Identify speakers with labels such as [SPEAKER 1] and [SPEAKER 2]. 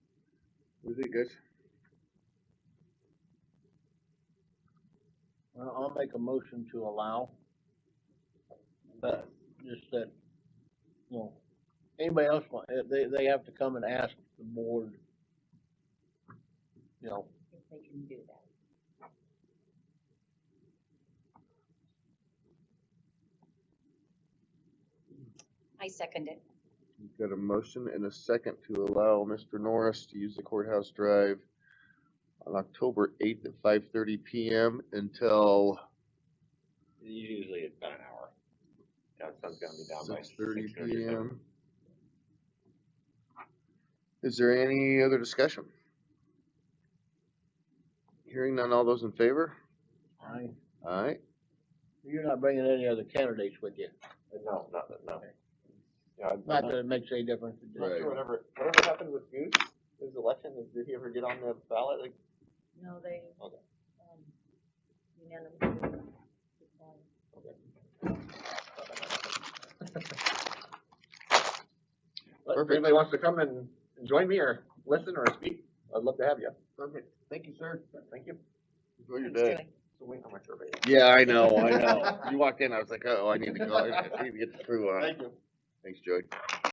[SPEAKER 1] Was it good?
[SPEAKER 2] Well, I'll make a motion to allow, but just that, you know, anybody else want, eh, they, they have to come and ask the board, you know,
[SPEAKER 3] if they can do that. I second it.
[SPEAKER 1] We've Got a motion and a second to allow Mr. Norris to use the courthouse drive on October eighth at five thirty PM until
[SPEAKER 4] Usually it's about an hour. You know, the sun's gonna be down by
[SPEAKER 1] six thirty
[SPEAKER 4] six thirty or seven.
[SPEAKER 1] PM. Is there any other discussion? Hearing none, all those in favor?
[SPEAKER 2] I,
[SPEAKER 1] Aye.
[SPEAKER 2] you're not bringing any other candidates with you.
[SPEAKER 4] No, not, that- no. Yeah, I'm
[SPEAKER 2] Not
[SPEAKER 4] not
[SPEAKER 2] that it makes any difference. it just-
[SPEAKER 1] Right.
[SPEAKER 4] sure whatever, whatever happened with Goose, his election, did he ever get on the ballot? Like,
[SPEAKER 3] No, they,
[SPEAKER 4] Okay.
[SPEAKER 3] um, unanimously. declined.
[SPEAKER 4] But if
[SPEAKER 1] Perfect.
[SPEAKER 4] anybody wants to come and join me or listen or speak, I'd love to have you. Perfect. Thank you, sir. Thank you.
[SPEAKER 1] Enjoy your
[SPEAKER 3] Thanks,
[SPEAKER 1] day.
[SPEAKER 3] Joey.
[SPEAKER 4] So wait on my survey.
[SPEAKER 1] Yeah, I know, I know. You walked in, I was like, oh, I need to go, I need to get the crew on.
[SPEAKER 4] Thank you.
[SPEAKER 1] Thanks, Joey.